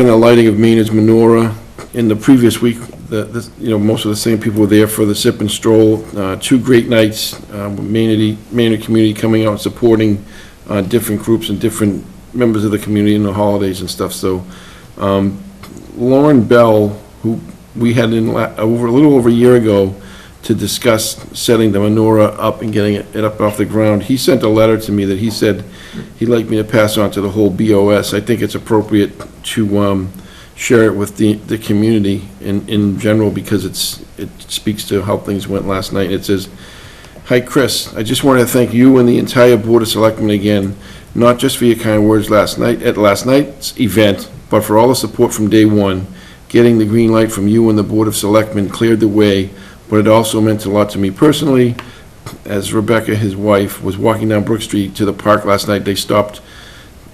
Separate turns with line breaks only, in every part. And the lighting of Maynard's menorah. In the previous week, the, this- you know, most of the same people were there for the sip and stroll. Uh, Two great nights, um, with Maynard, Maynard community coming out and supporting uh, different groups and different members of the community in the holidays and stuff. So um, Lauren Bell, who we had in, la- over, a little over a year ago, to discuss setting the menorah up and getting it it up off the ground. He sent a letter to me that he said he'd like me to pass on to the whole BOS. I think it's appropriate to um, share it with the, the community in, in general because it's, it speaks to how things went last night. It says, "Hi, Chris. I just wanted to thank you and the entire Board of Selectmen again, not just for your kind words last night, at last night's event, but for all the support from day one. Getting the green light from you and the Board of Selectmen cleared the way, but it also meant a lot to me personally. As Rebecca, his wife, was walking down Brook Street to the park last night, they stopped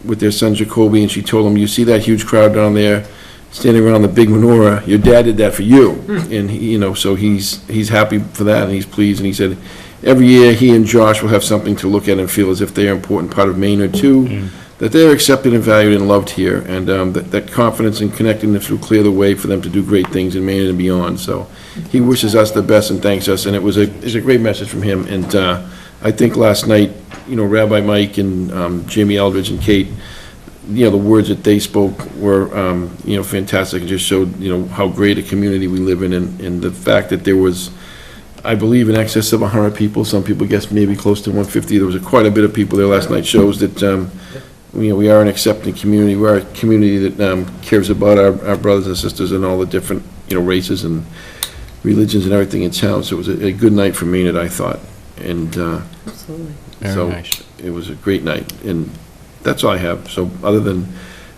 with their son Jacoby, and she told him, "You see that huge crowd down there standing around the big menorah? Your dad did that for you." And he, you know, so he's he's happy for that, and he's pleased, and he said, "Every year, he and Josh will have something to look at and feel as if they are an important part of Maine or two, that they are accepted and valued and loved here, and um, that that confidence and connectedness will clear the way for them to do great things in Maine and beyond." So he wishes us the best and thanks us, and it was a it's a great message from him, and. Uh, I think last night, you know, Rabbi Mike and um, Jamie Eldridge and Kate, you know, the words that they spoke were, um, you know, fantastic, and just showed, you know, how great a community we live in, and, and the fact that there was, I believe, in excess of 100 people, some people guess maybe close to 150, there was quite a bit of people there last night, shows that, um, you know, we are an accepting community, we are a community that um, cares about our, our brothers and sisters and all the different, you know, races and religions and everything in town, so it was a, a good night for Maynard, I thought, and, uh,
Absolutely.
so
Very nice.
It was a great night, and that's all I have. So other than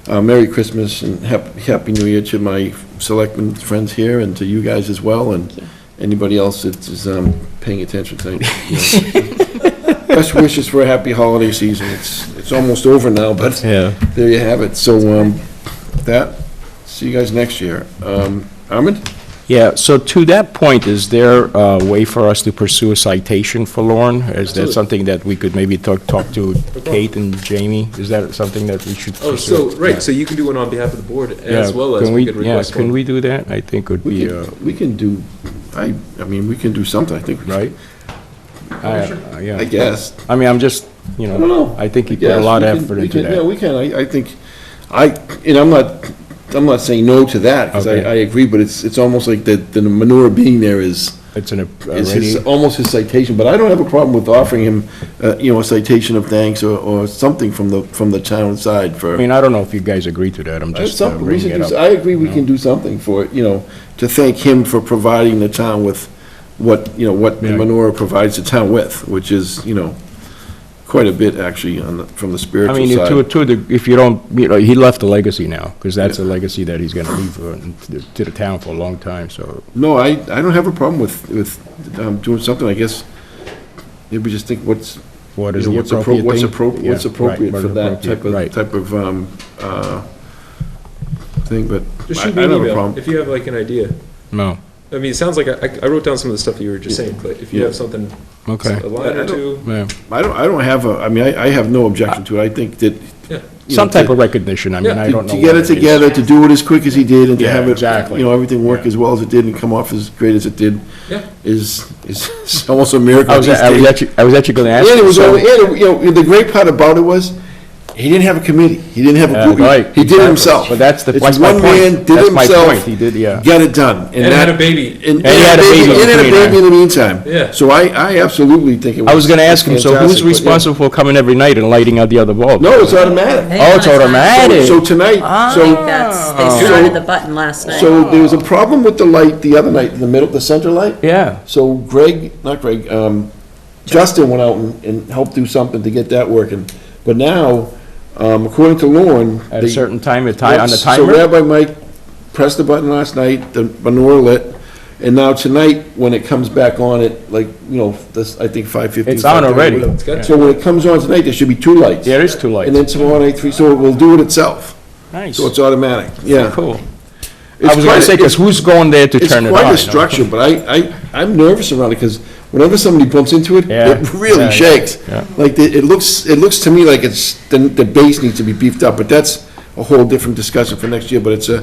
uh, Merry Christmas and Hap- Happy New Year to my selectmen friends here and to you guys as well, and anybody else that is um, paying attention tonight. Best wishes for a happy holiday season. It's, it's almost over now, but
Yeah.
there you have it. So um, that, see you guys next year. Um, Armand?
Yeah, so to that point, is there a way for us to pursue a citation for Lauren? Is that
Absolutely.
something that we could maybe talk, talk to Kate and Jamie? Is that something that we should pursue?
Oh, so,
Yeah.
right, so you can do one on behalf of the board as
Yeah,
well as
can
we could request
Yeah, can
one.
we do that? I think would
We
be, uh,
can, we can do, I, I mean, we can do something, I think. we-
right? I- I-
I
Yeah,
guess.
I mean, I'm just, you
I don't know.
know, I think you put
Yes,
a lot
we
of
can-
effort
we
into
can- Yeah,
that.
we can, I, I think, I, and I'm not, I'm not saying no to that, because I,
Okay.
I agree, but it's, it's almost like the, the manure being there is,
It's an, a-
is
already,
his, almost his citation, but I don't have a problem with offering him, uh, you know, a citation of thanks or, or something from the, from the town side for.
I mean, I don't know if you guys agree to that, I'm
That's
just uh,
something, we should
bringing it
do,
up.
I agree we can do something for, it, you know, to thank him for providing the town with what, you know, what the
Yeah.
menorah provides the town with, which is, you know, quite a bit, actually, on the, from the
I
spiritual side.
mean, if to, to, the- if you don't, you know, he left a legacy now, because that's a legacy that he's gonna leave uh, to the- to the town for a long time, so.
No, I, I don't have a problem with, with um, doing something, I guess, maybe just think what's,
What
you
is
know,
the
what's appro-
appropriate
what's
thing?
appro-
Yeah,
what's
right,
appropriate
what
for
is
that type
appropriate,
of, type of, um, uh, thing, but
Just
I I
shoot
don't
me an
have a
email
problem.
if you have like an idea.
Right, no,
I mean, it sounds like, I, I wrote down some of the stuff you were just saying, but if you
Yeah.
have something,
okay.
a line
I
or
don't-
two,
yeah.
I don't, I don't have a, I mean, I, I have no objection to it, I think that.
yeah.
you know,
Some type
to-
of recognition, I mean,
Yeah,
I
to-
don't know.
To get
what
it
is.
together, to do it as quick as he did, and to
Yeah,
have it,
exactly.
you know, everything work
Yeah.
as well as it did and come off as great as it did,
Yeah.
is, is almost a miracle.
I was,
these
I was
days.
actually, I was actually gonna ask.
And it
you,
was,
so-
only- and, it- you know, the great part about it was, he didn't have a committee, he didn't have a
Yeah,
group,
right,
he- he did
exactly.
it himself.
But that's the-
It's
that's my
one
point.
man, did
That's
it
my
himself,
point. He did, yeah.
Got it done.
And had
that-
a baby.
And
he
and
had
a
a
baby,
baby
and had a
between that.
baby in the meantime.
Yeah.
So I, I absolutely think it was.
I was gonna ask him, so who's
fantastic, but yeah.
responsible for coming every night and lighting out the other bulb?
No, it's automatic.
Oh, it's automatic.
So tonight, so.
Ah.
That's, they
so-
started the button last night.
So there was a problem with the light the other night, in the middle, the center light.
Yeah,
So Greg, not Greg, um, Justin went out and, and helped do something to get that working. But now, um, according to Lauren.
at
they-
a certain time, a ti- on the
Yes, So
timer?
Rabbi Mike pressed the button last night, the menorah lit, and now tonight, when it comes back on at, like, you know, this, I think five fifteen.
It's on already.
got-
So when it comes on tonight, there should be two lights.
Yeah, it is too late.
And then tomorrow night, three, so it will do it itself.
Nice,
So it's automatic, yeah.
cool.
It's
I was gonna
quite-
say, because who's going there to
it's
turn it on?
quite
you know?
a structure, but I, I, I'm nervous around it, because whenever somebody bumps into it,
Yeah.
it really
Yeah,
shakes.
yeah.
Like, the- it looks, it looks to me like it's, the, the base needs to be beefed up, but that's a whole different discussion for next year, but it's a,